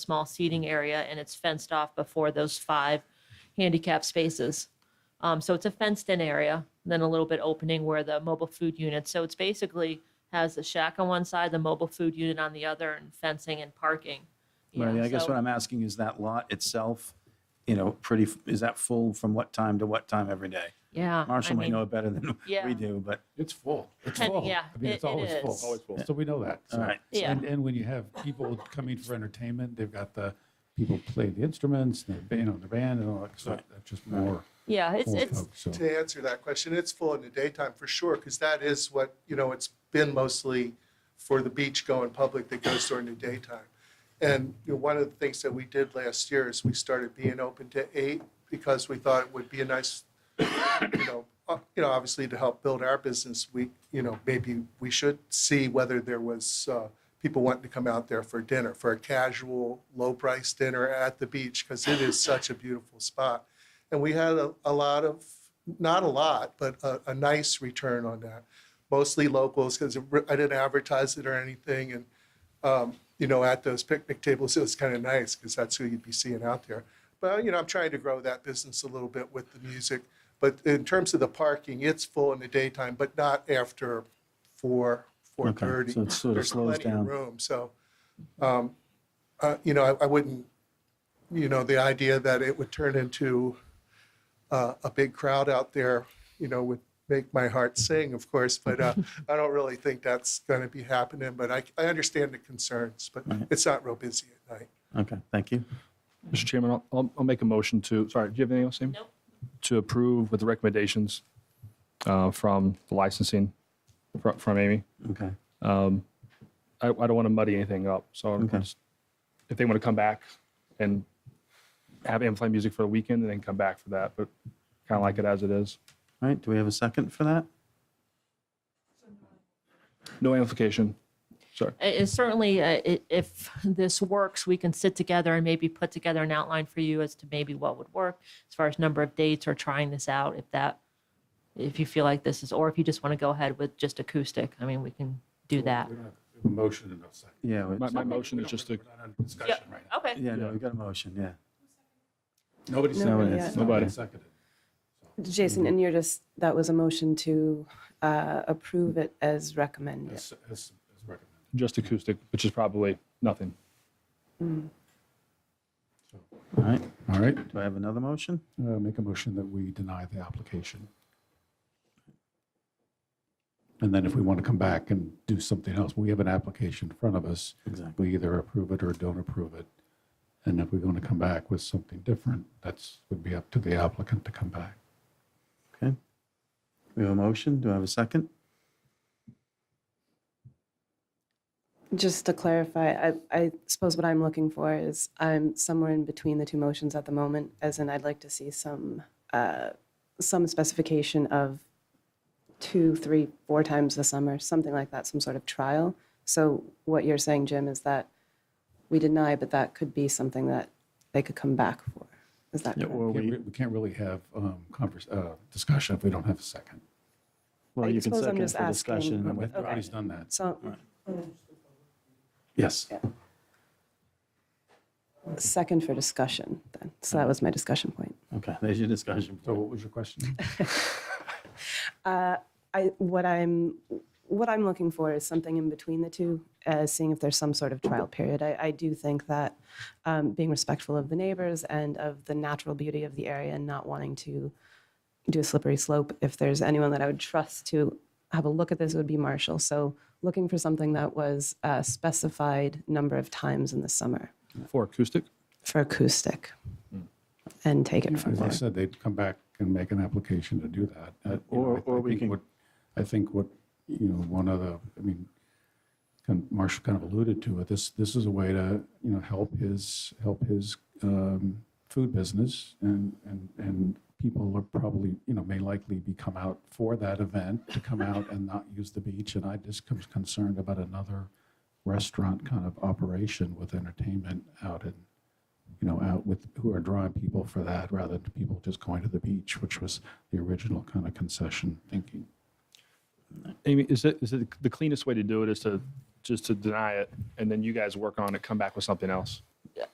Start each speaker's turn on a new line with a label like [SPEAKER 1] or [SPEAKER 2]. [SPEAKER 1] small seating area and it's fenced off before those five handicap spaces. Um, so it's a fenced in area, and then a little bit opening where the mobile food unit. So it's basically has the shack on one side, the mobile food unit on the other, and fencing and parking. you
[SPEAKER 2] Right,
[SPEAKER 1] know,
[SPEAKER 2] I guess
[SPEAKER 1] so-
[SPEAKER 2] what I'm asking is that lot itself, you know, pretty, f- is that full from what time to what time every day?
[SPEAKER 1] Yeah. I
[SPEAKER 2] Marshall may
[SPEAKER 1] mean,
[SPEAKER 2] know it better than
[SPEAKER 1] yeah.
[SPEAKER 2] we do, but,
[SPEAKER 3] It's full. It's
[SPEAKER 1] And-
[SPEAKER 3] full.
[SPEAKER 1] yeah,
[SPEAKER 3] I mean,
[SPEAKER 1] it-
[SPEAKER 3] it's
[SPEAKER 1] it
[SPEAKER 3] always full.
[SPEAKER 1] is. Always
[SPEAKER 3] So we know that.
[SPEAKER 2] all
[SPEAKER 3] so.
[SPEAKER 2] right.
[SPEAKER 1] Yeah.
[SPEAKER 3] And, and when you have people coming for entertainment, they've got the people play the instruments, and the, you know, the band and all that. So that's just more.
[SPEAKER 1] Yeah, it's
[SPEAKER 3] more
[SPEAKER 1] it's
[SPEAKER 3] folks, so.
[SPEAKER 4] To answer that question, it's full in the daytime for sure, because that is what, you know, it's been mostly for the beach-going public that goes during the daytime. And you know, one of the things that we did last year is we started being open to eight because we thought it would be a nice, you know, uh, you know, obviously to help build our business, we, you know, maybe we should see whether there was uh, people wanting to come out there for dinner, for a casual, low-price dinner at the beach, because it is such a beautiful spot. And we had a, a lot of, not a lot, but a, a nice return on that. Mostly locals, because I didn't advertise it or anything. And, um, you know, at those picnic tables, it was kind of nice because that's who you'd be seeing out there. But, you know, I'm trying to grow that business a little bit with the music. But in terms of the parking, it's full in the daytime, but not after four, four
[SPEAKER 2] Okay,
[SPEAKER 4] thirty.
[SPEAKER 2] so it sort of
[SPEAKER 4] There's
[SPEAKER 2] slows
[SPEAKER 4] plenty of
[SPEAKER 2] down.
[SPEAKER 4] Room, so, um, uh, you know, I, I wouldn't, you know, the idea that it would turn into uh, a big crowd out there, you know, would make my heart sing, of course, but uh, I don't really think that's going to be happening. But I, I understand the concerns, but
[SPEAKER 2] Right.
[SPEAKER 4] it's not real busy at night.
[SPEAKER 2] Okay, thank you.
[SPEAKER 5] Mr. Chairman, I'll- I'll, I'll make a motion to, sorry, do you have anything else, Amy?
[SPEAKER 1] Nope.
[SPEAKER 5] To approve with the recommendations uh, from the licensing, fro- from Amy.
[SPEAKER 2] Okay,
[SPEAKER 5] Um, I, I don't want to muddy anything up, so I'm
[SPEAKER 2] Okay.
[SPEAKER 5] just- if they want to come back and have Amplify Music for the weekend and then come back for that, but kind of like it as it is.
[SPEAKER 2] all right, do we have a second for that?
[SPEAKER 5] No amplification. Sorry.
[SPEAKER 1] it- it's certainly uh, i- if this works, we can sit together and maybe put together an outline for you as to maybe what would work as far as number of dates or trying this out. If that, if you feel like this is, or if you just want to go ahead with just acoustic, I mean, we can do that.
[SPEAKER 3] We don't have we have a motion and a second.
[SPEAKER 2] Yeah, we-
[SPEAKER 5] My, my
[SPEAKER 1] Okay.
[SPEAKER 5] motion is just to,
[SPEAKER 3] We're not under discussion right now.
[SPEAKER 1] Okay.
[SPEAKER 2] yeah, no, we got a motion, yeah. Nobody
[SPEAKER 3] Nobody seconded.
[SPEAKER 2] yet.
[SPEAKER 3] it. It's not been
[SPEAKER 5] Nobody.
[SPEAKER 3] Seconded.
[SPEAKER 6] Jason, and you're just, that was a motion to uh, approve it as recommended.
[SPEAKER 3] As, as, as recommended.
[SPEAKER 5] just acoustic, which is probably nothing.
[SPEAKER 2] All right,
[SPEAKER 3] All right.
[SPEAKER 2] do I have another motion?
[SPEAKER 3] Uh, make a motion that we deny the application. And then if we want to come back and do something else, we have an application in front of us.
[SPEAKER 2] Exactly.
[SPEAKER 3] We either approve it or don't approve it. And if we're going to come back with something different, that's, would be up to the applicant to come back.
[SPEAKER 2] Okay. We have a motion, do I have a second?
[SPEAKER 6] Just to clarify, I, I suppose what I'm looking for is I'm somewhere in between the two motions at the moment, as in I'd like to see some, uh, some specification of two, three, four times the summer, something like that, some sort of trial. So what you're saying, Jim, is that we deny, but that could be something that they could come back for. Is that
[SPEAKER 2] Yeah,
[SPEAKER 6] correct?
[SPEAKER 2] or
[SPEAKER 3] We can't
[SPEAKER 2] we,
[SPEAKER 3] re- we can't really have um, converse, uh, discussion if we don't have a second.
[SPEAKER 2] well,
[SPEAKER 6] I
[SPEAKER 2] you can
[SPEAKER 6] suppose I'm
[SPEAKER 2] second
[SPEAKER 6] just
[SPEAKER 2] for
[SPEAKER 6] asking-
[SPEAKER 2] discussion. and then we-
[SPEAKER 3] We've already done that.
[SPEAKER 6] So
[SPEAKER 3] Yes.
[SPEAKER 6] second for discussion then. So that was my discussion point.
[SPEAKER 2] Okay, there's your discussion.
[SPEAKER 3] So what was your question?
[SPEAKER 6] Uh, I, what I'm, what I'm looking for is something in between the two, uh, seeing if there's some sort of trial period. I, I do think that um, being respectful of the neighbors and of the natural beauty of the area and not wanting to do a slippery slope, if there's anyone that I would trust to have a look at this, it would be Marshall. So looking for something that was a specified number of times in the summer
[SPEAKER 5] For acoustic?
[SPEAKER 6] for acoustic and take it from
[SPEAKER 3] As I
[SPEAKER 6] there.
[SPEAKER 3] said, they'd come back and make an application to do that. Uh, you know,
[SPEAKER 2] Or-
[SPEAKER 3] I-
[SPEAKER 2] or
[SPEAKER 3] I
[SPEAKER 2] we
[SPEAKER 3] think
[SPEAKER 2] can-
[SPEAKER 3] what- I think what, you know, one of the, I mean, kind of- Marshall kind of alluded to it, this, this is a way to, you know, help his, help his um, food business and, and, and people are probably, you know, may likely be come out for that event, to come out and not use the beach. And I just am concerned about another restaurant kind of operation with entertainment out in, you know, out with, who are drawing people for that rather than people just going to the beach, which was the original kind of concession thinking.
[SPEAKER 5] Amy, is it, is it the cleanest way to do it is to just to deny it and then you guys work on it, come back with something else?